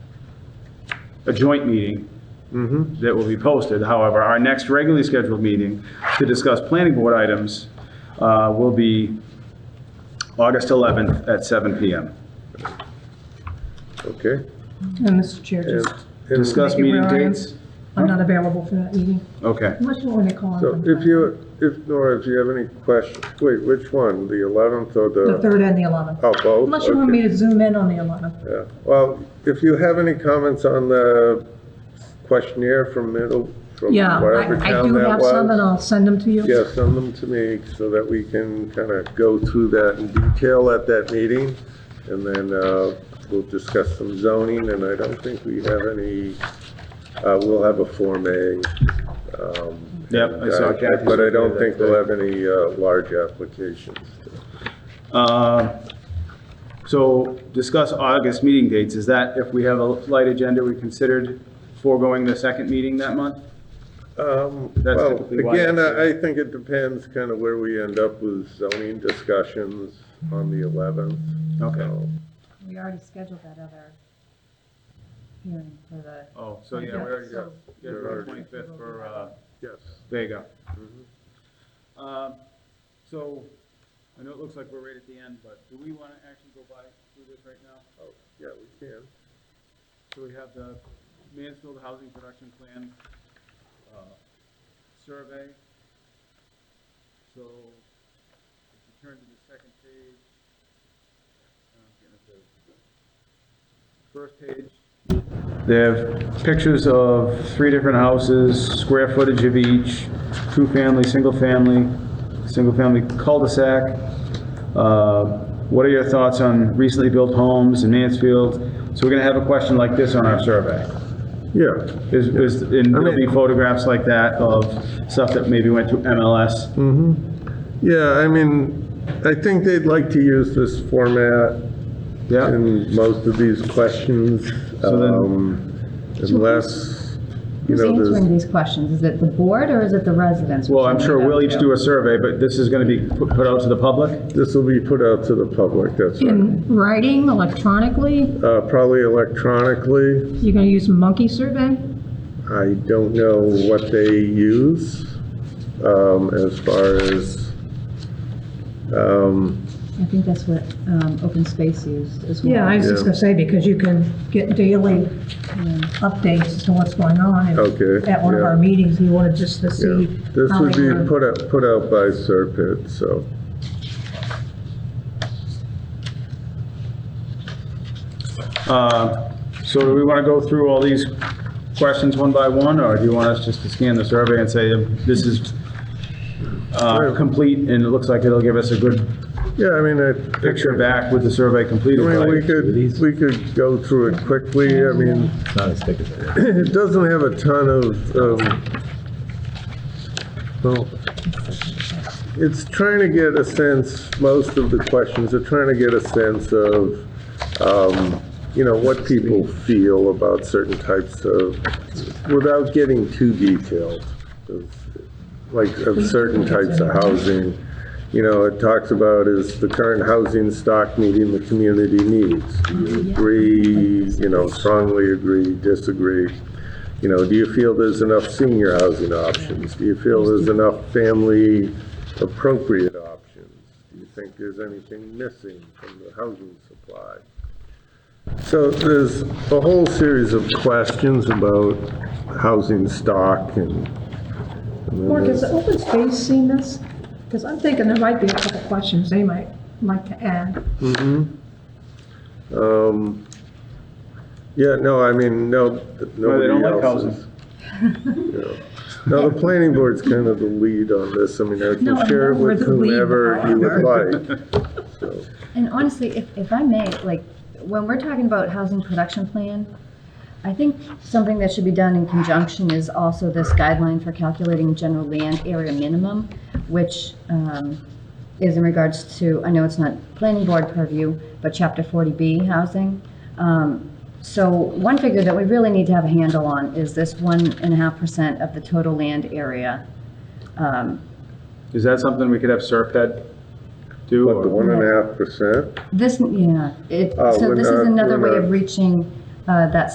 a joint meeting that will be posted. However, our next regularly scheduled meeting to discuss planning board items uh, will be August 11th at 7 PM. Okay. And Mr. Chair, And- just, and Discuss Thank you, meeting Brian. dates? I'm not available for that meeting, Okay. unless you want me to call. So if you, if, Nora, if you have any questions, wait, which one, the 11th or The the, third and the 11th. oh, both? Unless you want Okay. me to zoom in on the 11th. Yeah, well, if you have any comments on the questionnaire from middle, from Yeah, whatever I- I town do that have some, and was. I'll send them to you. Yeah, send them to me so that we can kind of go through that in detail at that meeting. And then uh, we'll discuss some zoning, and I don't think we have any, uh, we'll have a Form A. um, Yep, I saw uh, Kathy's But I don't think there. we'll have any uh, large applications. Uh, So discuss August meeting dates. Is that if we have a light agenda, we considered foregoing the second meeting that month? Um, That's Well, typically why I again, say- I I think it depends kind of where we end up with zoning discussions on the 11th. Okay. So, We already scheduled that other hearing for the, Oh, so yeah, we already got, yeah, for the 25th for, uh, Yes. there you go. Um, So I know it looks like we're right at the end, but do we want to actually go by through this right now? Oh, Yeah, we can. So we have the Mansfield Housing Production Plan uh, survey. So if you turn to the second page, uh, get it there. first page. They have pictures of three different houses, square footage of each, two-family, single-family, single-family cul-de-sac. Uh, What are your thoughts on recently built homes in Mansfield? So we're going to have a question like this on our survey. Yeah. Is, is, and there'll be photographs like that of stuff that maybe went to MLS. Yeah, I mean, I think they'd like to use this format Yeah, in most of these questions, So then- um, unless, you who's know, answering there's, these questions? Is it the board or is it the residents? well, I'm sure we'll each do a survey, but this is going to be put put out to the public? this will be put out to the public, that's right. In writing, electronically, Uh, Probably electronically. you're gonna use monkey survey? I don't know what they use um, as far as, um, I think that's what um, open space used as well. Yeah, I was just Yeah. gonna say, because you can get daily updates as to what's going on. and Okay, At one of yeah. our meetings, you wanted just to yeah. see. this how would they be were- put out, put out by Serpent, so. Uh, So do we want to go through all these questions one by one, or do you want us just to scan the survey and say, this is uh, complete, and it looks like it'll give us a good Yeah, I mean, I. picture back with the survey completed? I mean, we right? could, we could go through it quickly, I mean, It's not as thick as that. it doesn't have a ton of, um, well, it's trying to get a sense, most of the questions are trying to get a sense of, um, you know, what people feel about certain types of, without getting too detailed, of- like of certain types of housing. You know, it talks about is the current housing stock meeting the community needs? Do you agree, you know, strongly agree, disagree? You know, do you feel there's enough senior housing options? Do you feel there's enough family appropriate options? Do you think there's anything missing from the housing supply? So there's a whole series of questions about housing stock and. and then Mark, there's- has open space seen this? Because I'm thinking there might be a couple questions they might like to add. Um, yeah, no, I mean, no, th- Well, they don't nobody like else houses. is. No, the planning board's kind of the lead on this. I mean, I No, I can share it know we're with the lead, whomever but you would like. So, And honestly, if, if I may, like, when we're talking about housing production plan, I think something that should be done in conjunction is also this guideline for calculating general land area minimum, which um, is in regards to, I know it's not planning board purview, but chapter 40B housing. Um, So one figure that we really need to have a handle on is this one and a half percent of the total land area. Um, Is that something we could have Serped do? What, or- the one and a half percent? This, yeah, it, Uh, so we're this not- is another we're way of not- reaching uh, that